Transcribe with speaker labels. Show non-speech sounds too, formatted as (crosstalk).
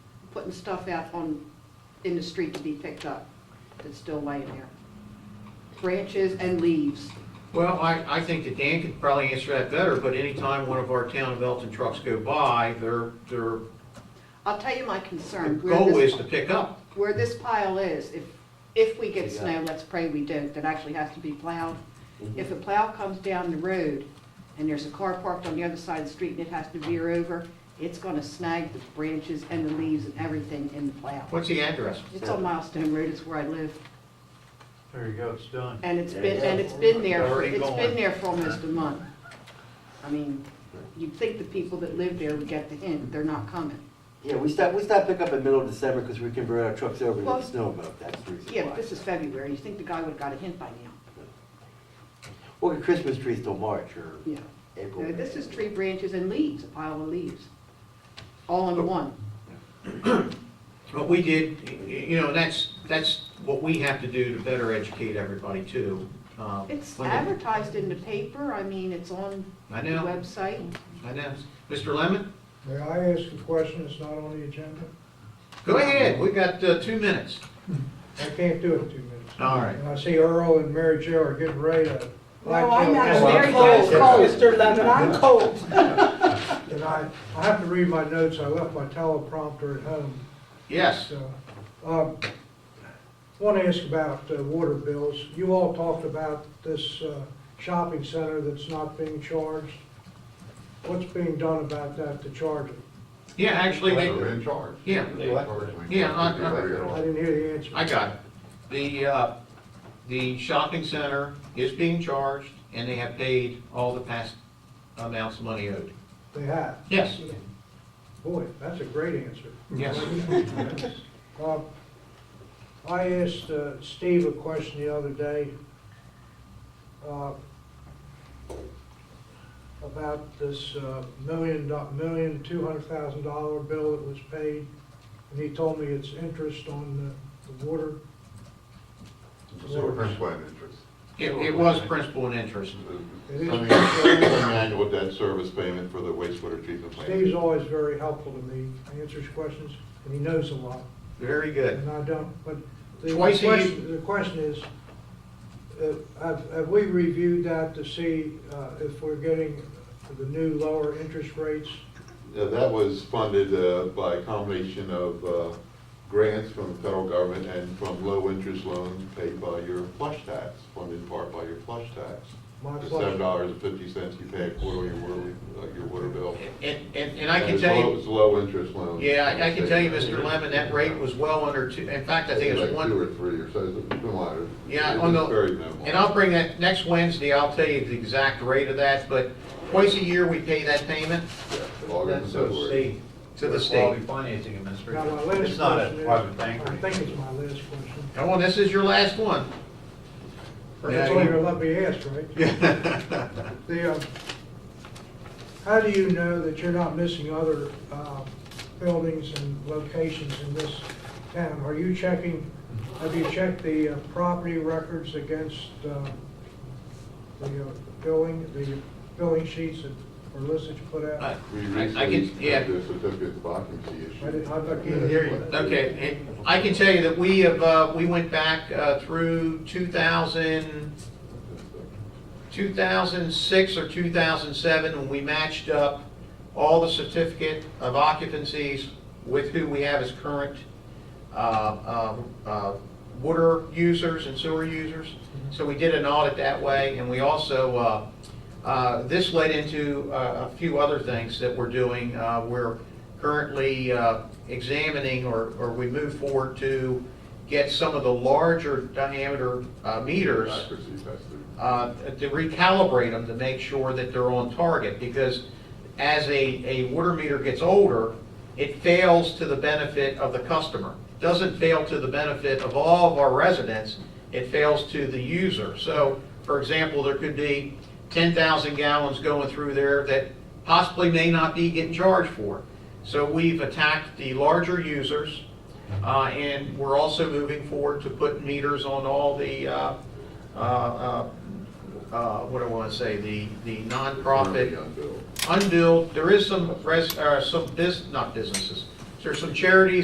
Speaker 1: putting stuff out on, in the street to be picked up that's still laying there. Branches and leaves.
Speaker 2: Well, I, I think that Dan could probably answer that better, but anytime one of our town of Elton trucks go by, their, their
Speaker 1: I'll tell you my concern. where
Speaker 2: goal
Speaker 1: this-
Speaker 2: is to pick up.
Speaker 1: Where this pile is, if, if we get snow, let's pray we don't, that actually has to be plowed.
Speaker 2: Mm-hmm.
Speaker 1: If a plow comes down the road and there's a car parked on the other side of the street and it has to veer over, it's gonna snag the branches and the leaves and everything in the plow.
Speaker 2: What's the address?
Speaker 1: It's on Milestone Road, it's where I live,
Speaker 3: There you go, it's done.
Speaker 1: and it's
Speaker 4: There
Speaker 1: been,
Speaker 4: you go.
Speaker 1: and it's been there, for-
Speaker 2: Already
Speaker 1: it's been
Speaker 2: gone.
Speaker 1: there for almost a month. I mean, you'd think the people that live there would get the hint, they're not coming.
Speaker 4: Yeah, we stopped, we stopped pickup in middle of December because we can bring our trucks over and
Speaker 1: Well-
Speaker 4: let snow about that's the reason
Speaker 1: Yeah,
Speaker 4: why.
Speaker 1: but this is February, you think the guy would've got a hint by now,
Speaker 4: Well, the Christmas trees till March or
Speaker 1: yeah.
Speaker 4: April.
Speaker 1: No, This is tree branches and leaves, a pile of leaves, all
Speaker 2: Oh.
Speaker 1: in one.
Speaker 2: What we did, y- y- you know, that's, that's what we have to do to better educate everybody too. Um,
Speaker 1: It's
Speaker 2: when they-
Speaker 1: advertised in the paper, I mean, it's on
Speaker 2: I
Speaker 1: the
Speaker 2: know,
Speaker 1: website.
Speaker 2: I know. Mr. Lemon,
Speaker 5: May I ask a question that's not on the agenda?
Speaker 2: go ahead, we got uh, two minutes.
Speaker 5: I can't do it in two minutes.
Speaker 2: All right.
Speaker 5: And I see Earl and Mary Jo are getting ready to.
Speaker 6: No, I'm not,
Speaker 5: Blackjack.
Speaker 6: Mary Jo's cold, Mr. Lemon, I'm cold.
Speaker 5: And I, I have to read my notes, I left my teleprompter at home,
Speaker 2: Yes,
Speaker 5: so. um, Want to ask about uh, water bills. You all talked about this uh, shopping center that's not being charged. What's being done about that to charge it?
Speaker 2: yeah, actually, they,
Speaker 7: They're in charge.
Speaker 2: Yeah. Yeah, I- I-
Speaker 5: I didn't hear the answer.
Speaker 2: I got it. The, uh, the shopping center is being charged, and they have paid all the past amounts of money owed.
Speaker 5: They have.
Speaker 2: Yes.
Speaker 5: Boy, that's a great answer.
Speaker 2: Yes.
Speaker 5: (laughs) Uh, I asked uh, Steve a question the other day uh, about this uh, million, do- million, two hundred thousand dollar bill that was paid, and he told me it's interest on the- the water.
Speaker 7: Principal and interest.
Speaker 2: It, it was principal and interest.
Speaker 7: I
Speaker 5: It is-
Speaker 7: mean, an annual debt service payment for the wastewater treatment
Speaker 5: Steve's
Speaker 7: plant.
Speaker 5: always very helpful to me, He answers questions, and he knows a lot.
Speaker 2: Very good.
Speaker 5: And I don't, but the
Speaker 2: Twice a year.
Speaker 5: question, the question is, uh, have, have we reviewed that to see uh, if we're getting the new lower interest rates?
Speaker 7: Yeah, That was funded uh, by a combination of uh, grants from the federal government and from low-interest loans paid by your flush tax, funded in part by your flush tax.
Speaker 5: My
Speaker 7: The
Speaker 5: flush-
Speaker 7: seven dollars and fifty cents you pay a quarter on your water, uh, your water bill.
Speaker 2: And, and, and I can
Speaker 7: It's
Speaker 2: tell
Speaker 7: low-
Speaker 2: you,
Speaker 7: It's low-interest loans.
Speaker 2: yeah, I- I can tell you, Mr. Lemon, that rate was well under two, in fact, I think it was
Speaker 7: Like
Speaker 2: one.
Speaker 7: two or three, or so, it's been lighter.
Speaker 2: Yeah,
Speaker 7: It
Speaker 2: on
Speaker 7: was
Speaker 2: the-
Speaker 7: Very minimal.
Speaker 2: And I'll bring that, next Wednesday, I'll tell you the exact rate of that, but twice a year, we pay that payment
Speaker 7: Yeah, August and February.
Speaker 2: to the state.
Speaker 3: Financing
Speaker 5: Now,
Speaker 3: Administration.
Speaker 5: my last
Speaker 3: It's not a
Speaker 5: question is-
Speaker 3: private bank or
Speaker 5: I think it's my last question.
Speaker 2: Come on, this is your last one.
Speaker 5: That's all you're let me ask, right? The, uh, how do you know that you're not missing other uh, buildings and locations in this town? Are you checking, have you checked the uh, property records against uh, the uh, billing, the billing sheets that were listed to put
Speaker 2: I
Speaker 5: out?
Speaker 7: We
Speaker 2: I
Speaker 7: recently
Speaker 2: can, yeah.
Speaker 7: had the certificate of occupancy issue.
Speaker 5: I did- I thought you-
Speaker 7: Yeah,
Speaker 5: Here
Speaker 7: that's what-
Speaker 2: Okay, and I can tell you that we have, uh, we went back uh, through 2000, 2006 or 2007, when we matched up all the certificate of occupancies with who we have as current uh, uh, uh, water users and sewer users. So we did an audit that way, and we also, uh, uh, this led into uh, a few other things that we're doing. Uh, We're currently uh, examining, or or we move forward to get some of the larger diameter uh, meters
Speaker 7: Accuracy tested.
Speaker 2: uh, to recalibrate them to make sure that they're on target, because as a, a water meter gets older, it fails to the benefit of the customer. Doesn't fail to the benefit of all of our residents, it fails to the user. So, for example, there could be 10,000 gallons going through there that possibly may not be getting charged for. So we've attacked the larger users, uh, and we're also moving forward to put meters on all the, uh, uh, uh, uh, what do I want to say, the, the nonprofit
Speaker 7: Unbilled.
Speaker 2: unbilled, there is some res, uh, some bus, not businesses, there's some charities